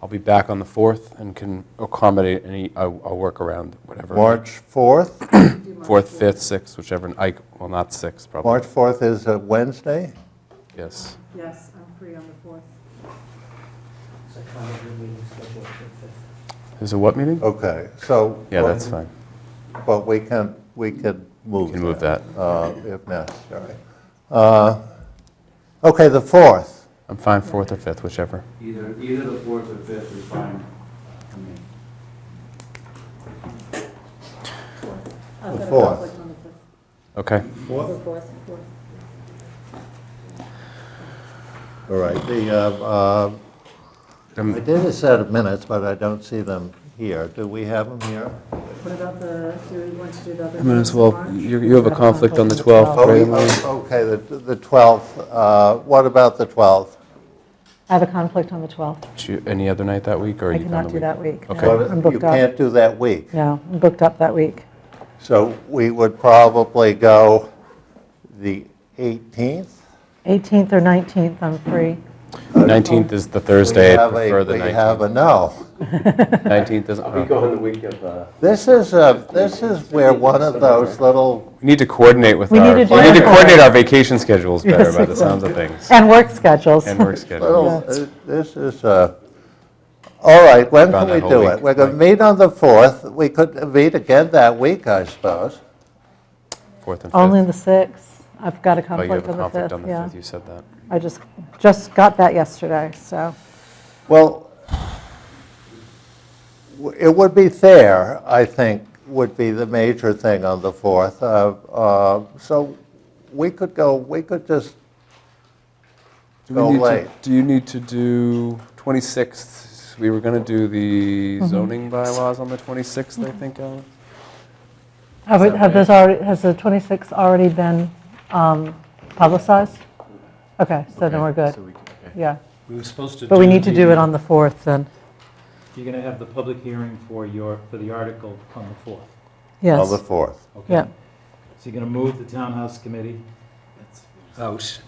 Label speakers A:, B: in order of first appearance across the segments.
A: I'll be back on the 4th and can accommodate any, I'll I'll work around whatever.
B: March 4th.
A: 4th, 5th, 6th, whichever, I, well, not 6th, probably.
B: March 4th is a Wednesday.
A: Yes.
C: Yes, I'm free on the 4th.
D: Psychology meeting scheduled for
A: Is it what meeting?
B: Okay, so.
A: Yeah, that's fine.
B: But we can, we could move.
A: Can move that.
B: uh, If necessary. Uh, Okay, the 4th.
A: I'm fine 4th or 5th, whichever.
E: Either, either the fourth or fifth is fine. I mean,
C: I've
B: The
C: got a
B: fourth.
C: conflict on the
A: Okay.
B: All
C: 5th. The 4th, 4th.
B: right, the, uh, uh, I
A: Um,
B: did a set of minutes, but I don't see them here. Do we have them here?
C: What about the, do we want to do the other?
A: I mean, as
C: ones in
A: well,
C: March?
A: you you have a conflict on the 12th,
B: Oh, we-
A: right, Emily?
B: oh, Okay, the the 12th. uh, What about the 12th?
F: I have a conflict on the 12th.
A: Do you- Any other night that week, or?
F: I
A: you on
F: cannot
A: the
F: do that week.
A: Okay.
F: No,
B: What-
F: I'm
B: You
F: booked up.
B: can't do that week.
F: No, I'm booked up that week.
B: So we would probably go the 18th?
F: 18th or 19th, I'm free.
A: 19th is the Thursday, I
B: We have a-
A: prefer the
B: We have
A: 19th.
B: a no.
A: 19th is,
G: I'll be
A: uh,
G: gone the week of, uh,
B: This is, a- this is where one of those little,
A: we need to coordinate with
F: We
A: our, we
F: need
A: need
F: to
A: to
F: do-
A: coordinate our vacation schedules better,
F: Yes,
A: by the sounds of things,
F: And work schedules.
A: and work
B: little,
A: schedules.
B: uh, this is, a- all right, when
A: Gone
B: can
A: that
B: we
A: whole
B: do it?
A: week,
B: We're going to meet on the 4th. We could meet again that week, I suppose.
A: 4th and 5th.
F: Only the 6th. I've got a
A: Oh, you
F: conflict
A: have a
F: on the 5th.
A: conflict on the
F: yeah.
A: 5th, you said that.
F: I just, just got that yesterday, so.
B: Well, w- it would be fair, I think, would be the major thing on the 4th. Uh, uh, So we could go, we could just
A: Do we
B: go
A: need to-
B: late.
A: Do you need to do 26th? We were going to do
F: Mm-hmm.
A: the zoning bylaws on the 26th, I think, Alan?
F: Have
A: Is
F: it-
A: that
F: have
A: right?
F: this already, has the 26th already been um, publicized? Okay, so then we're good. Yeah,
D: We were supposed to
F: but we need to do it on the 4th then.
D: You're going to have the public hearing for your, for the article on the 4th,
B: On the
F: Yes,
B: 4th.
D: okay?
F: yeah.
D: So you're going to move the townhouse committee out,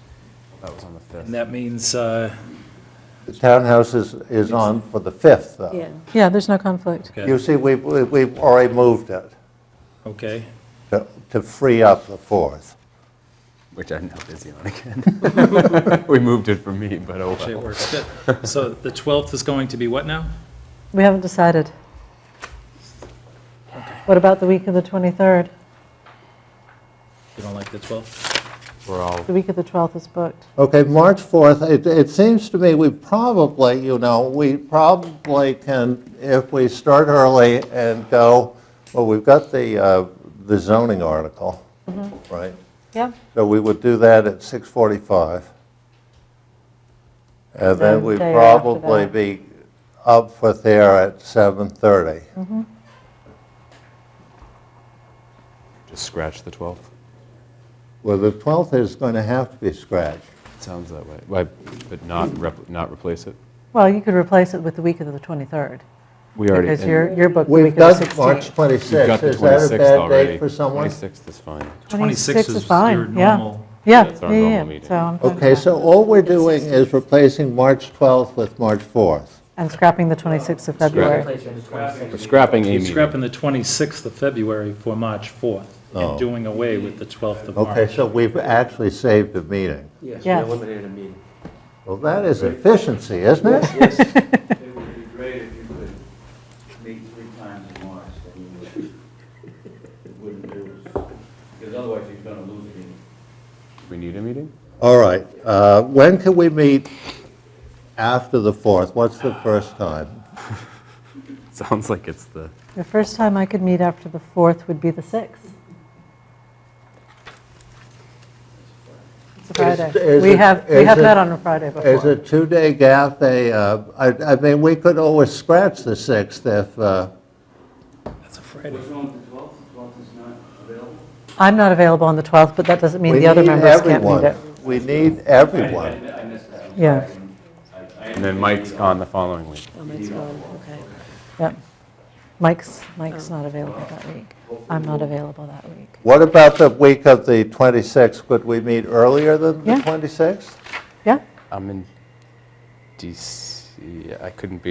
A: That was on the 5th.
D: and that means, uh,
B: The townhouse is, is on for the 5th,
C: Yeah.
B: though.
F: Yeah, there's no conflict.
D: okay,
B: You see, we've, we- we've already moved it
D: okay.
B: to- to free up the 4th.
A: Which I'm now busy on again. We moved it for me, but oh
D: Actually, it
A: well.
D: works. So the 12th is going to be what now?
F: We haven't decided. What about the week of the 23rd?
D: You don't like the 12th?
A: We're all,
F: The week of the 12th is booked.
B: Okay, March 4th, it, it seems to me we probably, you know, we probably can, if we start early and go, well, we've got the, uh, the zoning article,
F: Mm-hmm.
B: right?
F: Yeah.
B: So we would do that at 6:45. And then
F: Then
B: we'd
F: day after
B: probably
F: that.
B: be up for there at 7:30.
F: Mm-hmm.
A: just scratch the 12th.
B: Well, the 12th is going to have to be scratched.
A: Sounds that way. Why- But not, rep- not replace it?
F: Well, you could replace it with the week of the 23rd,
A: We already.
F: because
A: and
F: you're, you're booked the
B: We've
F: week of the
B: got March
F: 16th.
A: You've got
B: 26th.
A: the
B: Is that a
A: 26th
B: bad date
A: already.
B: for someone?
A: 26th is fine.
D: 26 is
F: fine,
D: your
F: yeah.
D: normal-
F: Yeah,
A: That's our
F: yeah,
A: normal
F: yeah,
A: meeting.
F: so I'm fine with
B: Okay,
F: that.
B: so all we're doing is replacing March 12th with March 4th.
F: And scrapping the 26th of February.
A: We're scrapping a
D: You're
A: meeting.
D: scrapping the 26th of February for March 4th
B: Oh.
D: and doing away with the 12th of March.
B: Okay, so we've actually saved a meeting.
G: yes, we
F: Yes.
G: eliminated a meeting.
B: Well, that is efficiency, isn't it?
E: Yes, it would be great if you could meet three times in March, then you would, it wouldn't lose, because otherwise you're gonna lose again.
A: We need a meeting?
B: All right, uh, when can we meet after the 4th? What's the first time?
A: Sounds like it's the.
F: The first time I could meet after the 4th would be the 6th. It's a Friday.
B: is
F: We
B: it-
F: have, we
B: is
F: have
B: it-
F: that on a Friday
B: Is
F: before.
B: a two-day gap a, uh, I I mean, we could always scratch the 6th if, uh,
D: That's a Friday.
E: What's wrong with the twelfth? The twelfth is not available?
F: I'm not available on the 12th, but that doesn't mean
B: we
F: the
B: need
F: other members can't meet
B: everyone.
F: it.
B: We need everyone.
E: I missed that.
F: Yeah,
A: And then Mike's on the following week.
C: Oh, Mike's gone, okay.
F: yeah. Mike's, Mike's not available that week. I'm not available that week.
B: What about the week of the 26th? Could we meet earlier than the
F: Yeah.
B: 26th?
F: Yeah?
A: I'm in DC. I couldn't be